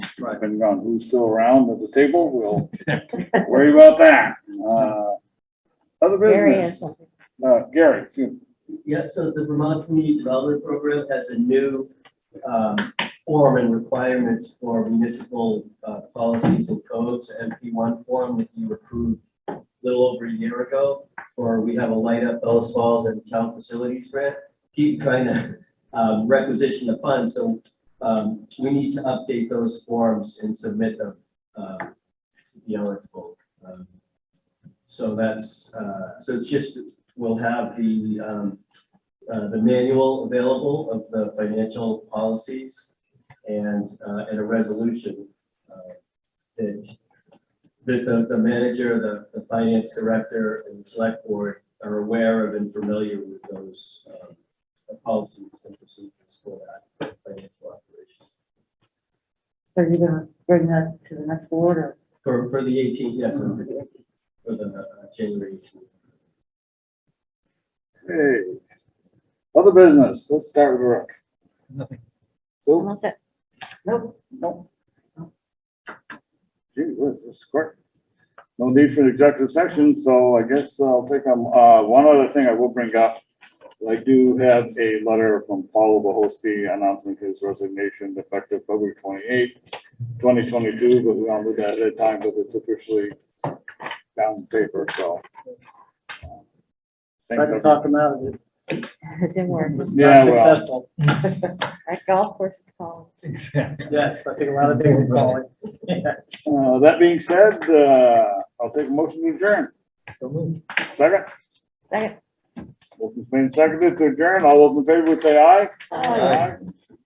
depending on who's still around at the table, we'll worry about that. Uh, Other Very business, interesting. uh, Gary, excuse me. Yeah, so the Vermont Community Development Program has a new um, form and requirements for municipal uh, policies and codes, MP one form that you approved a little over a year ago, for we have a light up Bellas Falls and town facilities grant. Keep trying to um, requisition the funds, so um, we need to update those forms and submit them um, to be eligible. Um, So that's, uh, so it's just we'll have the, um, uh, the manual available of the financial policies and, uh, and a resolution, uh, that, that the, the manager, the, the finance director and the select board are aware of and familiar with those, um, policies and procedures for that financial operation. So you're gonna bring that to the next board or? For, for the eighteenth, yes, for the, for the uh, January 18th. Hey. Other business, let's start with Rick. Nothing. So, Almost it. Nope. no. Gee, whiz, this is quick. No need for an executive section, so I guess I'll take, um, uh, one other thing I will bring up. I do have a letter from Paul Bohosky announcing his resignation effective February twenty-eighth, twenty twenty-two, but we don't do that at a time, but it's officially down on paper, so. um, Tried to talk him out of it. It didn't work. It was Yeah, not well. successful. That golf course is called. Exactly. Yes, I think a lot of things are falling. Uh, that being said, uh, I'll take a motion to adjourn. So moved. Second, Second. motion's been seconded to adjourn. All those in favor would say aye. Aye.